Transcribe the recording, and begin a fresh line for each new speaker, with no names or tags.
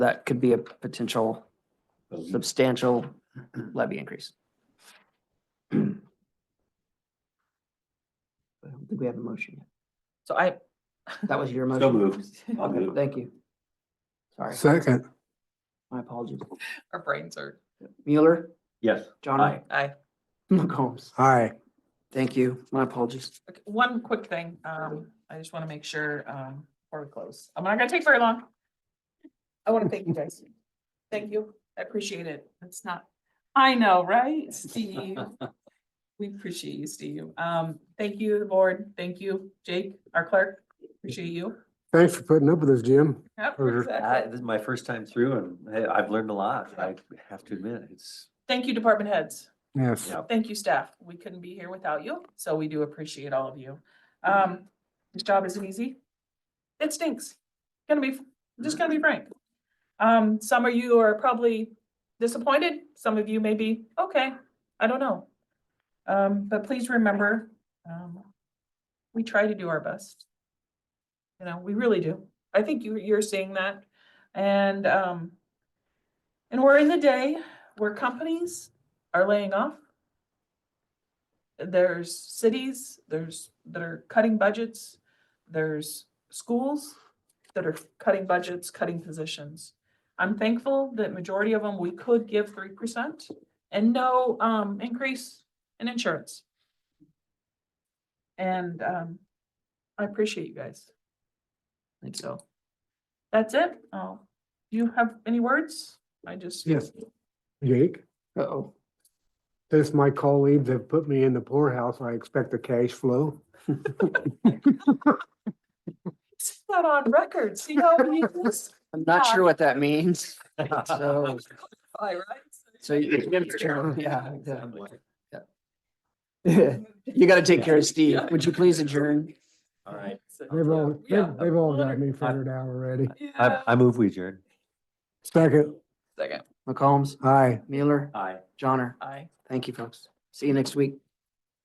that could be a potential
Um,
substantial levy increase. I don't think we have a motion
So I,
yet. That was your motion.
So moved. I'll move.
Thank you. Sorry,
Second,
my apologies.
our brains are,
Mueller,
Yes.
John,
I,
McCombs.
aye.
Thank you. My apologies.
okay, one quick thing, um, I just want to make sure, um, before we close, I'm not gonna take very long. I want to thank you guys. Thank you, I appreciate it. It's not, I know, right, Steve? We appreciate you, Steve. Um, thank you, the board. Thank you, Jake, our clerk. Appreciate you.
Thanks for putting up with us, Jim.
Yep,
Sure.
I-
exactly.
This is my first time through and hey, I've learned a lot. I have to admit, it's,
Thank you, department heads.
Yes.
Yeah.
Thank you, staff. We couldn't be here without you, so we do appreciate all of you. Um, this job isn't easy. It stinks. Gonna be, just gonna be frank. Um, some of you are probably disappointed. Some of you may be, okay, I don't know. Um, but please remember, um, we try to do our best. You know, we really do. I think you, you're seeing that. And, um, and we're in the day where companies are laying off. There's cities, there's, that are cutting budgets, there's schools that are cutting budgets, cutting positions. I'm thankful that majority of them, we could give three percent and no, um, increase in insurance. And, um, I appreciate you guys. And so, that's it. Oh, you have any words? I just.
Yes. Jake,
Uh-oh.
since my colleagues have put me in the poorhouse, I expect a cash flow.
It's not on record, see how we just,
I'm not sure what that means. So,
I, right?
so you, yeah,
I'm
exactly.
like,
You gotta take care of Steve.
Yeah.
Would you please adjourn?
All right.
They've all, they've-
Yeah.
they've all got me figured out already.
I, I move we adjourn.
Second,
Second,
McCombs,
aye.
Mueller,
Aye.
Johnner.
I.
Thank you, folks. See you next week.